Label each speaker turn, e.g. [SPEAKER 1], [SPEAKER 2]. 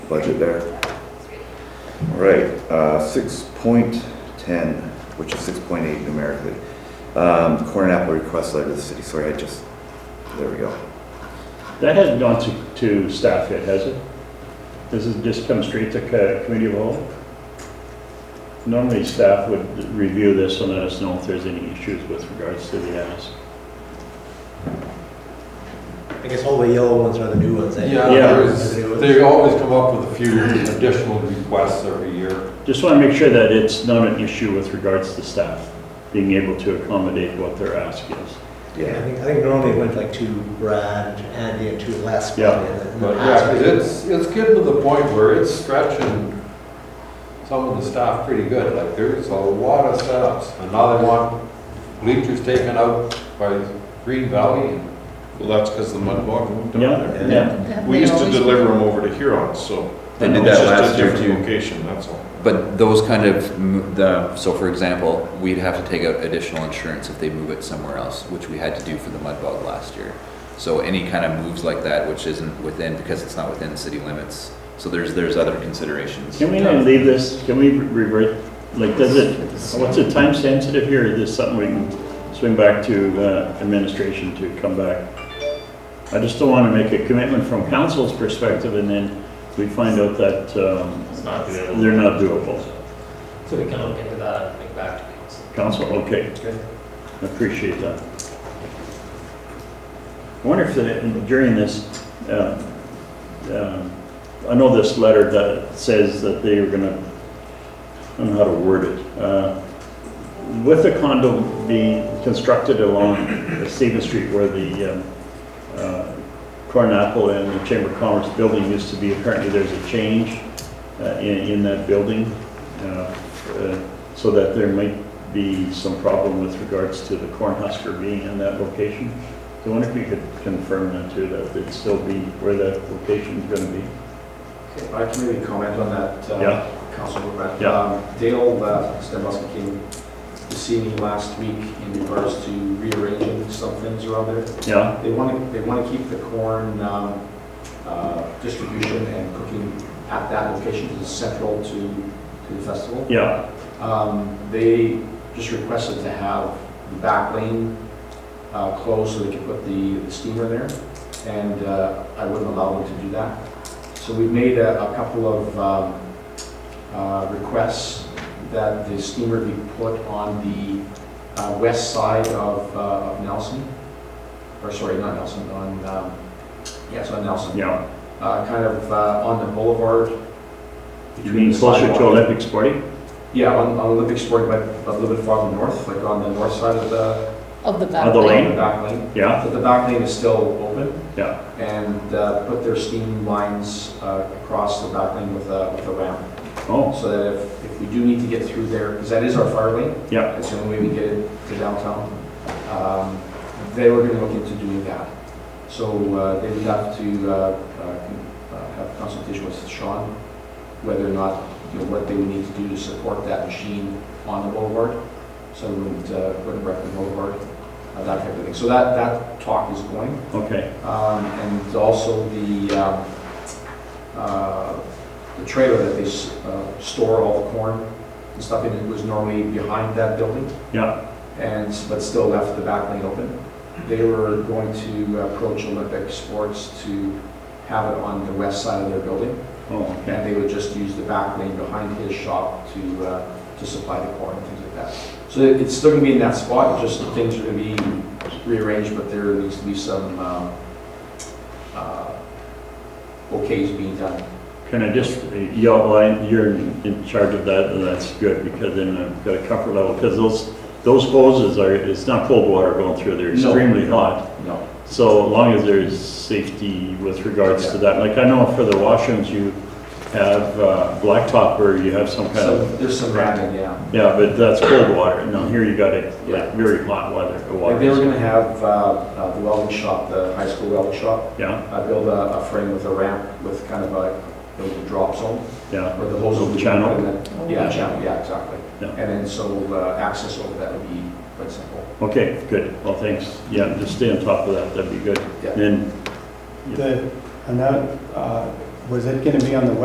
[SPEAKER 1] budget there. All right, uh, six point ten, which is six point eight numerically. Um, corn apple request letter to the city, sorry, I just, there we go.
[SPEAKER 2] That hasn't gone to, to staff yet, has it? This has just come straight to co- committee of all? Normally, staff would review this and let us know if there's any issues with regards to the ask.
[SPEAKER 3] I guess all the yellow ones are the new ones. eh?
[SPEAKER 4] Yeah,
[SPEAKER 2] Yeah.
[SPEAKER 4] there
[SPEAKER 3] Are
[SPEAKER 4] is,
[SPEAKER 3] the new ones.
[SPEAKER 4] they always come up with a few additional requests every year.
[SPEAKER 2] Just want to make sure that it's not an issue with regards to staff being able to accommodate what their ask is.
[SPEAKER 3] Yeah, I think, I think normally it went like to Brad, to Andy, and to Les.
[SPEAKER 2] Yeah.
[SPEAKER 3] probably, and then-
[SPEAKER 4] But yeah, 'cause it's, it's getting to the point where it's stretching some of the staff pretty good, like there's a lot of setups. And now they want bleachers taken out by Green Valley and
[SPEAKER 5] Well, that's because the mud bog moved down
[SPEAKER 2] Yeah,
[SPEAKER 5] there.
[SPEAKER 2] yeah.
[SPEAKER 5] We used to deliver them over to Huron, so.
[SPEAKER 6] They
[SPEAKER 5] It's
[SPEAKER 6] did that
[SPEAKER 5] just a
[SPEAKER 6] last year
[SPEAKER 5] different
[SPEAKER 6] too.
[SPEAKER 5] Location, that's all.
[SPEAKER 6] But those kind of, m- the, so for example, we'd have to take out additional insurance if they move it somewhere else, which we had to do for the mud bog last year. So any kind of moves like that, which isn't within, because it's not within city limits, so there's, there's other considerations.
[SPEAKER 2] Can we not leave this, can we revert, like, does it, what's it time sensitive here? Is this something we can swing back to uh, administration to come back? I just don't want to make a commitment from council's perspective and then we find out that um, they're not doable.
[SPEAKER 7] So we can look into that and think back to council.
[SPEAKER 2] Council, okay.
[SPEAKER 3] Okay.
[SPEAKER 2] I Appreciate that. I wonder if the- during this, uh, um, I know this letter that says that they are gonna, I don't know how to word it. uh, With the condo being constructed along the Stephen Street where the um, uh, Corn Apple and the Chamber of Commerce building used to be, apparently there's a change uh, in, in that building. uh, uh, So that there might be some problem with regards to the Cornhusker being in that location. So I wonder if you could confirm that too, that it'd still be where that location's gonna be?
[SPEAKER 8] I can maybe comment on that,
[SPEAKER 2] Yeah.
[SPEAKER 8] uh, Councilor Brett.
[SPEAKER 2] Yeah.
[SPEAKER 8] Um, Dale Stembusky came to see me last week in regards to rearranging some things around there.
[SPEAKER 2] Yeah,
[SPEAKER 8] They want to, they want to keep the corn um, uh, distribution and cooking at that location because it's central to to the festival.
[SPEAKER 2] yeah,
[SPEAKER 8] Um, They just requested to have the back lane uh, closed so they could put the the steamer there, and uh, I wouldn't allow them to do that. So we've made a a couple of um, uh, requests that the steamer be put on the uh, west side of uh, of Nelson, or sorry, not Nelson, on, um, yes, on Nelson.
[SPEAKER 2] yeah.
[SPEAKER 8] Uh, Kind of uh, on the boulevard.
[SPEAKER 2] You
[SPEAKER 8] between
[SPEAKER 2] mean
[SPEAKER 8] the
[SPEAKER 2] closer to
[SPEAKER 8] sidewalk-
[SPEAKER 2] Olympic Sporting?
[SPEAKER 8] yeah, on, on Olympic Sport, but a little bit farther north, like on the north side of the,
[SPEAKER 9] Of the back.
[SPEAKER 2] Of the
[SPEAKER 8] on
[SPEAKER 2] lane?
[SPEAKER 8] the back lane.
[SPEAKER 2] Yeah,
[SPEAKER 8] But the back lane is still open
[SPEAKER 2] yeah,
[SPEAKER 8] and uh, put their steam lines uh, across the back lane with a, with a ramp.
[SPEAKER 2] oh,
[SPEAKER 8] So that if, if we do need to get through there, because that is our fire lane,
[SPEAKER 2] yeah,
[SPEAKER 8] that's the only way we get it to downtown. Um, They were gonna look into doing that. So uh, they would have to uh, uh, uh, have consultation with Sean, whether or not, you know, what they would need to do to support that machine on the boulevard. So it wouldn't, uh, wouldn't wreck the boulevard, uh, that type of thing. So that, that talk is going.
[SPEAKER 2] okay,
[SPEAKER 8] Um, And also the, um, uh, the trailer that they s- uh, store all the corn and stuff in, it was normally behind that building
[SPEAKER 2] yeah,
[SPEAKER 8] and, but still left the back lane open. They were going to approach Olympic Sports to have it on the west side of their building.
[SPEAKER 2] oh,
[SPEAKER 8] And
[SPEAKER 2] okay.
[SPEAKER 8] they would just use the back lane behind his shop to, uh, to supply the corn and things like that. So it- it's still gonna be in that spot, just things are gonna be rearranged, but there needs to be some, um, uh, okays being done.
[SPEAKER 2] Can I just, y'all, I- you're in charge of that, and that's good, because then I've got a comfort level, because those, those hoses are, it's not cold water going through, they're
[SPEAKER 8] No.
[SPEAKER 2] extremely hot.
[SPEAKER 8] No.
[SPEAKER 2] So as long as there's safety with regards to that, like I know for the washrooms, you have uh, blacktop or you have some kind
[SPEAKER 8] So
[SPEAKER 2] of,
[SPEAKER 8] there's some racking, yeah.
[SPEAKER 2] yeah, but that's cold water. Now here you got it, like very hot weather, uh,
[SPEAKER 8] Like they were
[SPEAKER 2] water.
[SPEAKER 8] gonna have, uh, uh, the welding shop, the high school welding shop,
[SPEAKER 2] Yeah,
[SPEAKER 8] uh, build a, a frame with a ramp with kind of a, a drop zone
[SPEAKER 2] yeah,
[SPEAKER 8] where the hose will be.
[SPEAKER 2] Channel.
[SPEAKER 8] Yeah, channel, yeah, exactly.
[SPEAKER 2] Yeah.
[SPEAKER 8] And then so, uh, access over that would be quite simple.
[SPEAKER 2] okay, good. Well, thanks. Yeah, just stay on top of that, that'd be good.
[SPEAKER 8] Yeah.
[SPEAKER 2] And
[SPEAKER 10] The, and that, uh, was it gonna be on the